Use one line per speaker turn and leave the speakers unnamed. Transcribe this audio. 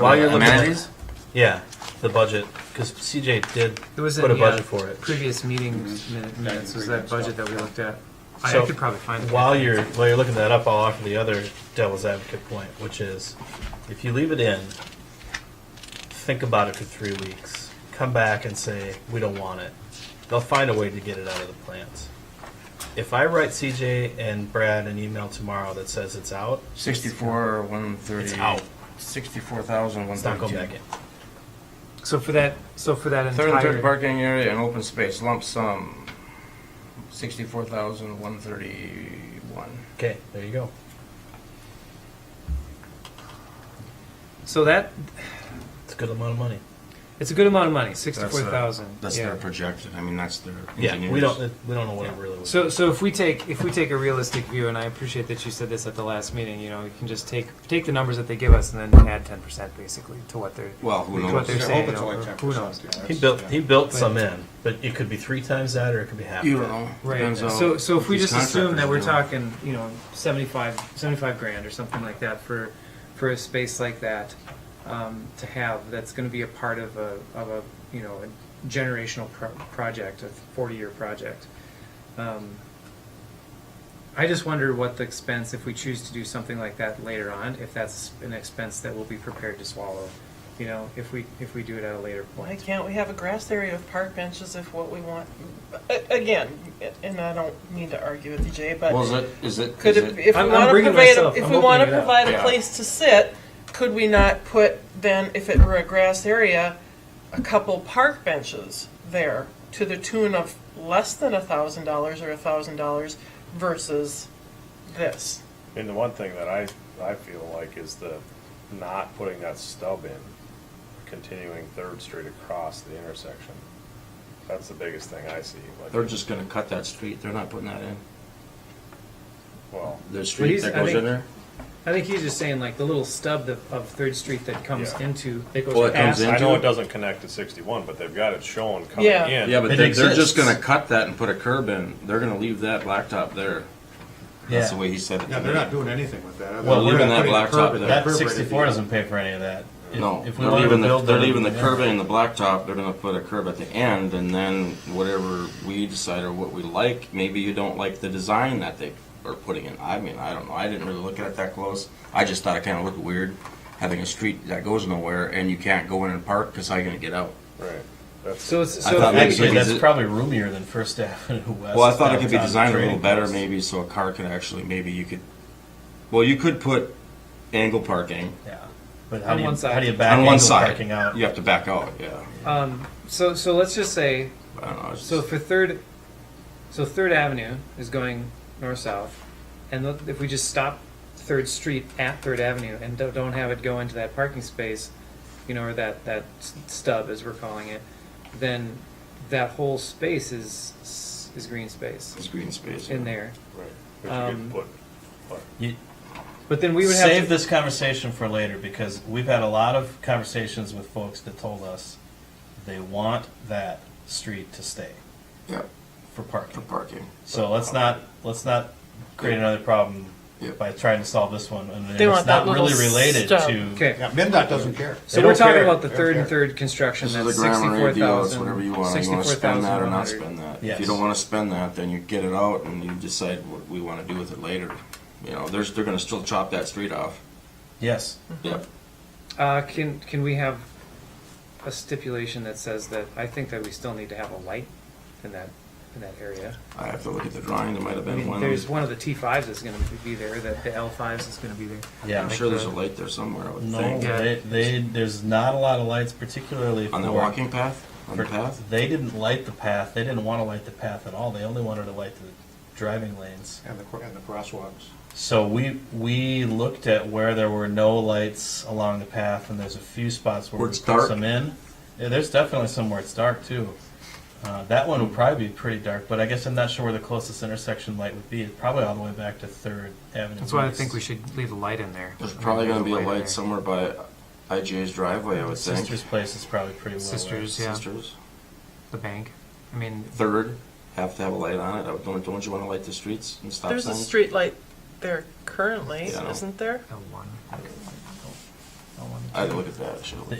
While you're looking at
Amenities?
these, yeah, the budget because CJ did
It was in
put a
the,
budget
uh,
for it.
Previous meetings minute- minutes was that budget that we looked at. I
So,
I could probably find it.
While you're while you're looking that up, I'll offer the other devil's advocate point, which is if you leave it in, think about it for three weeks, come back and say we don't want it. They'll find a way to get it out of the plans. If I write CJ and Brad an email tomorrow that says it's out,
Sixty-four, one thirty.
It's out.
Sixty-four thousand, one
it's not
thirty-two.
going back in.
So for that, so for that
Third and third
entire,
parking area and open space lump sum, sixty-four thousand, one thirty-one.
Okay, there you go.
so that,
It's a good amount of money.
it's a good amount of money,
uh,
sixty-four thousand.
That's their projected, I mean, that's their
Yeah, we
engineers.
don't we don't know what it really was.
So, so if we take, if we take a realistic view, and I appreciate that you said this at the last meeting, you know, you can just take, take the numbers that they give us and then add ten percent basically to what they're,
Well, who
to
knows?
what they're
They're
saying.
hoping
you
to
know,
like
or
10%,
Who knows?
yeah.
He built he built
But-
some in, but it could be three times that, or it could be half.
You
that.
don't know.
Right,
Depends on
so, so if we
these
just assume that we're
contractors
talking, you know, 75, 75 grand or something like that for, for a space like that um, to have, that's gonna be a part of a, of a, you know, a generational pro- project, a 40-year project. Um, I just wonder what the expense, if we choose to do something like that later on, if that's an expense that we'll be prepared to swallow, you know, if we, if we do it at a later
Why
point.
can't we have a grass area with park benches if what we want? a- Again, and I don't mean to argue with you, Jay, but
Well, is it, is it,
could
is it,
it, if we
I'm- I'm
want to
bringing
provide, a-
myself-
if
I'm
we
opening
want to
it up.
provide a
Yeah.
place to sit, could we not put then, if it were a grass area, a couple park benches there to the tune of less than a thousand dollars or a thousand dollars versus this?
And the one thing that I, I feel like is the not putting that stub in, continuing Third Street across the intersection. That's the biggest thing I see,
They're
like,
just gonna cut that street, they're not putting that in.
well,
The street
he's-
that
I
goes in
think-
there,
I think he's just saying like the little stub that- of Third Street that comes
Yeah.
into, that
Oh,
goes
it comes
past
in?
I know it doesn't connect to sixty-one, but they've got it shown coming
Yeah.
in.
yeah, but
It
they're, they're
exists.
just gonna cut that and put a curb in, they're gonna leave that blacktop there.
Yeah.
that's the way he said it.
Yeah, they're not doing anything with that.
Well,
They're
leaving
not
that
putting a
blacktop
curb in
there.
there.
That
Curb
sixty-four
rated.
doesn't pay for any of that. If-
No,
if we
they're
wanted
leaving,
to
the
build
they're
the-
leaving the curb in and the blacktop, they're gonna put a curb at the end, and then whatever we decide or what we like, maybe you don't like the design that they are putting in. I mean, I don't know, I didn't really look at it that close, I just thought it kinda looked weird, having a street that goes nowhere and you can't go in and park, cause how you gonna get out?
Right, that's,
So it's,
I
so
thought
if we-
maybe
Actually,
so
that's
is it-
probably roomier than First Avenue West.
Well, I thought it could be
downtown
designed a little
trading
better,
post.
maybe, so a car could actually, maybe you could, well, you could put angle parking
Yeah, but how
On
do
one
you,
side.
how do you back
on one
angle
side.
parking out?
You have to back out, yeah.
Um, so, so let's just say,
I don't know, it's
so
just-
for Third, so Third Avenue is going north-south, and look- if we just stop Third Street at Third Avenue and don't don't have it go into that parking space, you know, or that, that s- stub, as we're calling it, then that whole space is, s- is green space
it's green space.
in there.
right, if you
Um,
could put, put
You-
But then we would
Save
have to,
this conversation for later because we've had a lot of conversations with folks that told us they want that street to stay
Yeah,
for
for
parking.
parking.
So let's not let's not create another problem
Yep.
by trying to solve this one and
They
it's
want that
not really
little
related
stub.
to
okay.
Yeah, MinDOT doesn't care.
So
They
we're
don't
talking
care.
about the
They
third
don't
and
care.
third construction,
This is
that's
a grammar
sixty-four
radio, it's
thousand,
whatever you want, you wanna
sixty-four
spend
thousand
that or
one
not
hundred.
spend that. If you
Yes.
don't wanna spend that, then you get it out and you decide what we wanna do with it later. You know, there's, they're gonna still chop that street off.
yes.
Yep.
Uh, can, can we have a stipulation that says that, I think that we still need to have a light in that, in that area?
I have to look at the drawing, there might have
I
been
mean,
one.
there's one of the T fives that's gonna be there, that the L fives is gonna be there.
Yeah,
I'm
make
sure there's a
the-
light there somewhere, I would
No,
think.
Yeah.
they, they there's not a lot of lights, particularly
On the
for-
walking path, on the path?
They didn't light the path. They didn't want to light the path at all. They only wanted to light the driving lanes.
And the, cr- and the crosswalks.
So we we looked at where there were no lights along the path, and there's a few spots where,
Where
we
it's
put
dark.
some in. Yeah, there's definitely some where it's dark too. Uh, that one would probably be pretty dark, but I guess I'm not sure where the closest intersection light would be. It's probably all the way back to Third Avenue.
That's why I
East.
think we should leave a light in there.
There's probably gonna be a
in there.
light somewhere by IJ's driveway, I would think.
Sister's Place is probably pretty well. lit.
Sisters, yeah,
Sisters.
the bank, I mean,
Third, have to have a light on it. I would- Don't, don't you wanna light the streets and stop
There's a
signs?
street light there currently,
Yeah, I know.
isn't there?
L one.
That one
I had to look at that, I should've looked.